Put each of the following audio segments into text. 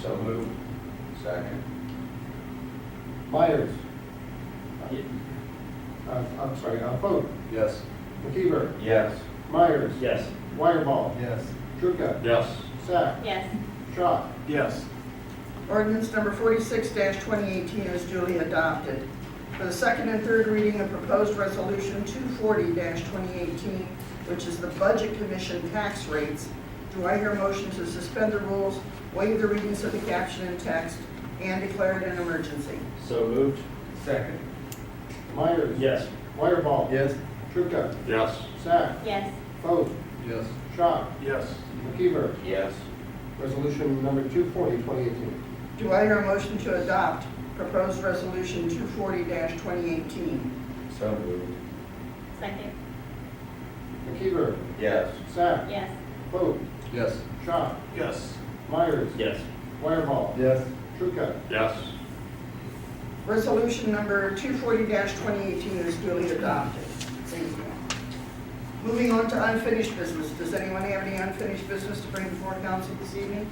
So moved. Second. Myers. Ye- Uh, I'm sorry, uh, Foote, Yes. McKeever, Yes. Myers. Yes. Wireball. Yes. Trucca. Yes. Sack. yes, Schott. Yes. Ordinance number forty-six twenty eighteen is duly adopted. For the second and third reading of proposed resolution two forty twenty eighteen, which is the Budget Commission tax rates, do I hear a motion to suspend the rules, waive the readings of the caption and text, and declare it an emergency? So moved. Second. Myers. Yes. Wireball. Yes. Trucca. Yes. Sack. yes, Foote, Yes. Schott. Yes. McKeever. Yes. Resolution number 240, 2018. Do I hear a motion to adopt proposed resolution two forty twenty eighteen? So moved. second, McKeever. Yes. Sack. yes, Foote, Yes. Schott. Yes. Myers. Yes. Wireball. Yes. Trucca. Yes. Resolution number two forty twenty eighteen is duly adopted. Thank you. Moving on to unfinished business. Does anyone have any unfinished business to bring before council this evening?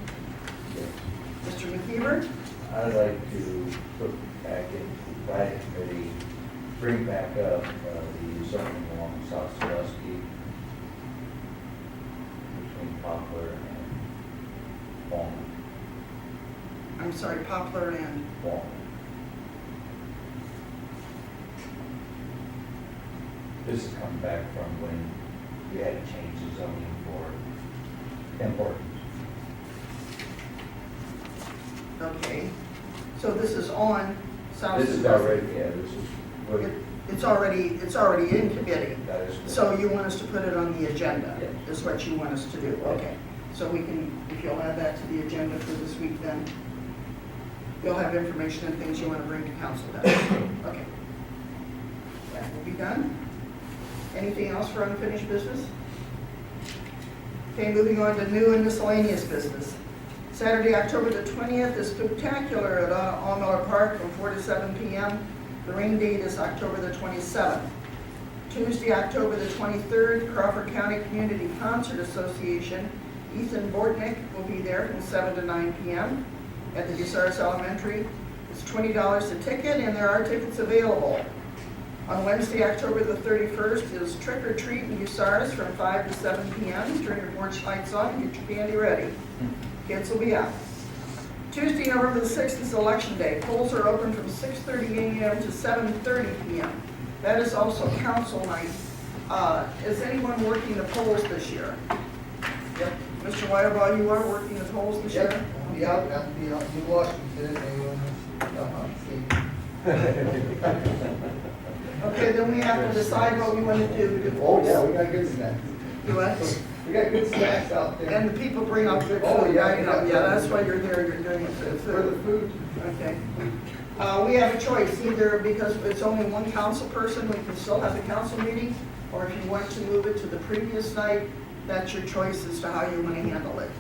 Mr. McKeever? I'd like to put back into planning committee, bring back up uh, the zoning along South Sandusky between Poplar and Walnut, I'm sorry, Poplar and, Walnut. This has come back from when we had to change the zoning for importance. okay. So this is on South. This is already, yeah, this is, It- what- It's already, it's already in committee. that is. So you want us to put it on the agenda, Yes. is what you want us to do, okay. So we can, if you'll add that to the agenda for this week then, you'll have information and things you want to bring to council then, okay. That will be done. Anything else for unfinished business? Okay, moving on to new and miscellaneous business. Saturday, October the 20th is spectacular at All Miller Park from 4 to 7 p.m. The rain date is October the 27th. Tuesday, October the 23rd, Crawford County Community Concert Association, Ethan Bortnick will be there from 7 to 9 p.m. at the Bucyrus Elementary. It's $20 a ticket, and there are tickets available. On Wednesday, October the 31st, is Trick or Treat in Bucyrus from 5 to 7 p.m. Turn your porch lights on, and get your candy ready. Kids will be out. Tuesday, November the 6th is Election Day. Polls are open from 6:30 a.m. to 7:30 p.m. That is also council night. Uh, Is anyone working the polls this year? Yep. Mr. Wireball, you are working the polls this year? Yeah, I'll be out in uh, Washington, and I'll have to see. Okay, then we have to decide what we want to do. Oh, yeah, we got good snacks. You what? We got good snacks out there. And the people bring up their Oh, food, yeah, right? yeah. Yeah, that's why you're there, you're doing it for the For the food. food, Okay. Uh, we have a choice, either because it's only one council person, we can still have a council meeting, or if you want to move it to the previous night, that's your choice as to how you want to handle it.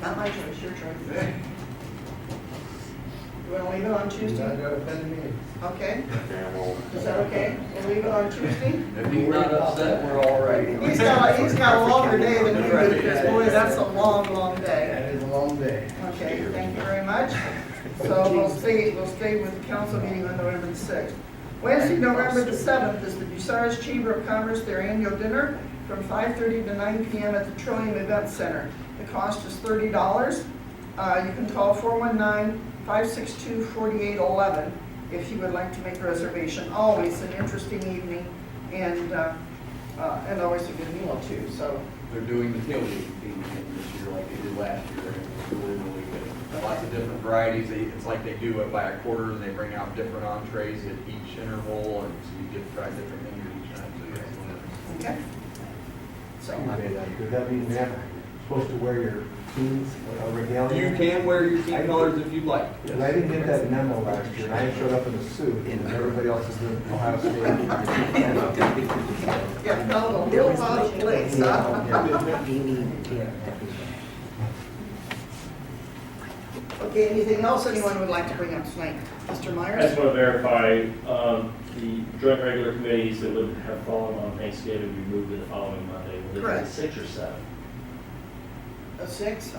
Not my choice, your choice. You want to leave it on not Tuesday? gonna offend me. Okay? Is that okay? We'll leave it on Tuesday? If he's not upset, we're all right. He's got, he's got a longer day than you do, because boy, that's a long, long day. That is a long day. Okay, thank you very much. So we'll stay, we'll stay with the council meeting on November the 6th. Wednesday, November the 7th is the Bucyrus Chamber of Commerce, their annual dinner from 5:30 to 9 PM at the Trillium Event Center. The cost is $30. Uh, You can call 419-562-4811 if you would like to make a reservation. Always an interesting evening and, uh, uh, and always a good meal too, so They're doing the tailgate thing again this year like they did last year, and it's really, really good. Lots of different varieties, They- it's like they do it by a quarter, and they bring out different entrees at each interval, and so you get to try different things each time, so you guys want to. Okay. So, Does that mean you're supposed to wear your teams uh, or regalia? You can wear your team colors if you'd like. And I didn't get that memo last year, and I showed up in a suit, and everybody else is in Ohio State. yeah, no, the real hot place, huh? Okay, anything else anyone would like to bring up tonight? I Mr. just Myers? want to verify, um, the joint regular committees that would have fallen on Thanksgiving, we moved to the following Monday. Will they be Correct. Six or seven? A six?